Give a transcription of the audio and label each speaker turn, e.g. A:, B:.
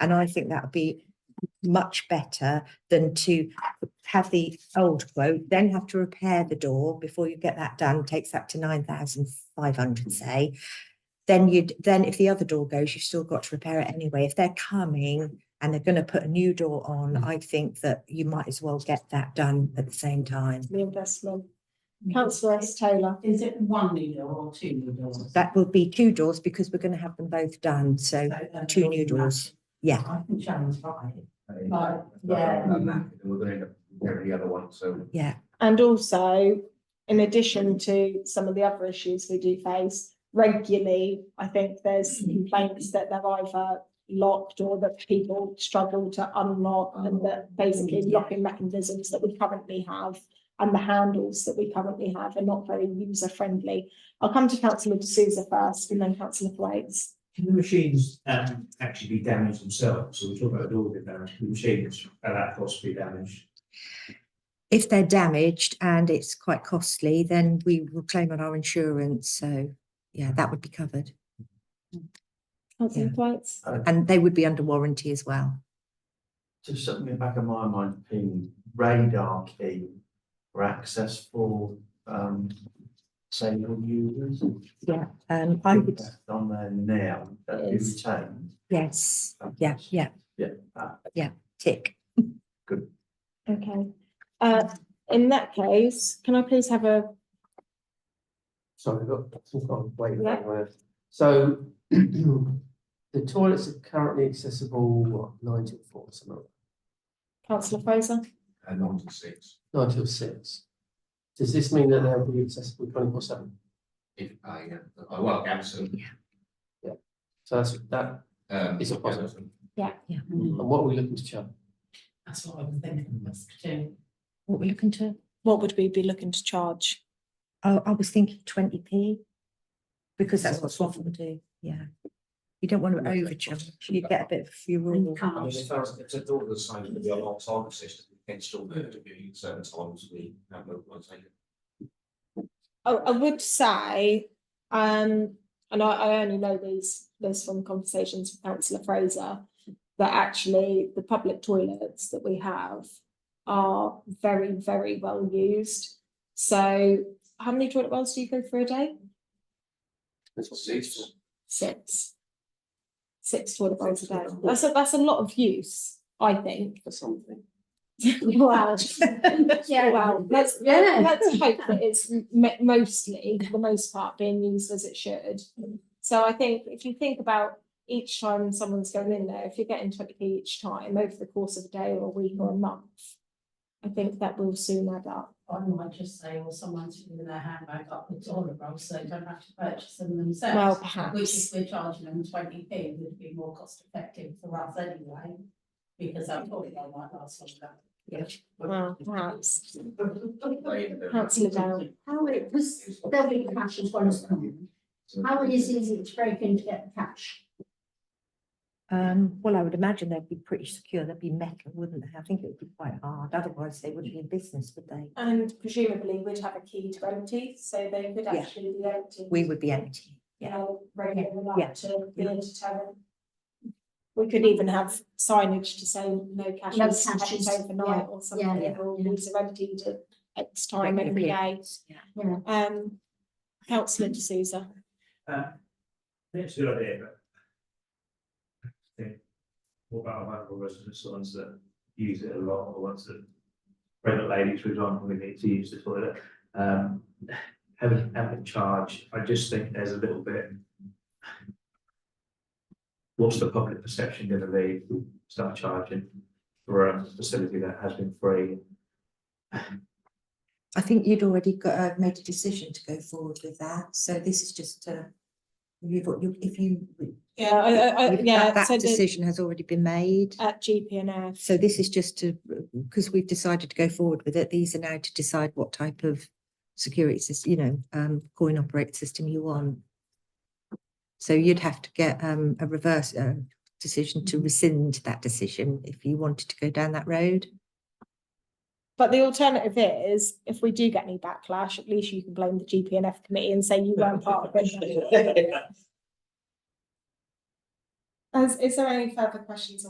A: And I think that would be much better than to have the old quote, then have to repair the door before you get that done, takes up to nine thousand five hundred, say. Then you'd, then if the other door goes, you've still got to repair it anyway. If they're coming and they're gonna put a new door on, I think that you might as well get that done at the same time.
B: the investment. Councillor S Taylor,
C: Is it one new door or two new doors?
A: That will be two doors because we're gonna have them both done, so,
C: uh,
A: two new doors. yeah.
C: I can challenge five.
D: Right,
C: yeah.
D: And that, we're gonna end up getting the other one, so.
B: and also, in addition to some of the other issues we do face, regularly, I think there's complaints that they're either locked or that people struggle to unlock and that basically
A: Yeah.
B: locking mechanisms that we currently have and the handles that we currently have are not very user friendly. I'll come to councillor D'Souza first and then councillor Thwaites.
E: Can the machines um actually be damaged themselves? So we talk about a door being damaged, the machines at that cost be damaged.
A: If they're damaged and it's quite costly, then we will claim on our insurance, so, yeah, that would be covered.
B: Councillor
A: Yeah.
B: Thwaites?
A: And they would be under warranty as well.
F: Just something in the back of my mind, ping radar key for access for um disabled users.
A: Um, I would,
F: That's On there now, that you
B: Yes.
F: retain.
A: yes, yeah, yeah,
F: Yeah, uh,
A: tick.
B: Okay, uh, in that case, can I please have a,
D: Sorry, I've got, I've got waiting
B: Yeah.
D: word. So the toilets are currently accessible, what, nine till four, something, like
B: councillor Fraser?
D: that? nine till six. Does this mean that they'll be accessible twenty-four seven?
G: If I, uh, I well, Gamson.
D: So that's that,
G: um,
D: It's a positive.
G: Gamson.
D: and what are we looking to charge?
C: Mm, That's what I was thinking, that's two.
A: What we're looking to,
B: What would we be looking to charge?
A: oh, I was thinking twenty P. Because that's what Swaffham would do, yeah. You don't want to overcharge, you get a bit of
C: You
A: fuel.
G: I mean,
C: can't.
G: if I was, if I thought of the sign of the alarm target system, it's still there to be certain times we have mobilised.
B: I, Oh, I would say, um, and I, I only know these, this from conversations with councillor Fraser, that actually the public toilets that we have are very, very well used. So how many toilet bowls do you go through a day?
G: Six.
B: Six. Six toilet bowls a day. That's a, that's a lot of use, I think.
D: for something?
B: Wow. Yeah, well, let's,
C: Yeah.
B: let's hope that it's m- mostly, for the most part, being used as it should. So I think if you think about each time someone's going in there, if you're getting twenty p each time over the course of a day or a week or a month, I think that will soon add up.
C: I might just say, well, someone's leaving their handbag up the toilet roll, so they don't have to purchase them themselves.
B: Well,
C: Which if
B: perhaps.
C: we're charging them twenty P would be more cost effective for us anyway, because I'm probably on my last
B: Well, perhaps.
C: one.
B: Councillor Dow.
H: How it was, there'll be cash as well as common. How easy is it to break in to get the cash?
A: Um, well, I would imagine they'd be pretty secure, they'd be metal, wouldn't they? I think it would be quite hard, otherwise they wouldn't be in business, would they?
B: And presumably we'd have a key to empty, so they could
A: Yeah.
B: actually be empty.
A: We would be empty.
B: you know, regular
A: Yeah.
B: that to be
A: Yeah.
B: a deterrent. We could even have signage to say no cash
H: No
B: is kept
H: cashes, yeah,
B: overnight or something,
H: yeah,
B: or
H: yeah.
B: these are emptied at X time every
A: Regularly.
B: day.
A: Yeah.
H: Yeah.
B: Um, councillor D'Souza,
E: Uh, it's a good idea, but. I think What about our local residents, the ones that use it a lot, or the ones that pregnant ladies, for example, who need to use the toilet, um, having having charge, I just think there's a little bit. What's the public perception gonna be, if we start charging for a facility that has been free?
A: I think you'd already got, uh, made a decision to go forward with that, so this is just, uh, you've got, you, if you.
B: yeah, I, I, I,
A: if that-
B: yeah,
A: That
B: so the,
A: decision has already been made,
B: at GPNF.
A: so this is just to, because we've decided to go forward with it, these are now to decide what type of security system, you know, um, coin operate system you want. So you'd have to get, um, a reverse, uh, decision
B: Mm-hmm.
A: to rescind that decision if you wanted to go down that road.
B: But the alternative is, if we do get any backlash, at least you can blame the GPNF committee and say you weren't part of it. As, is there any further questions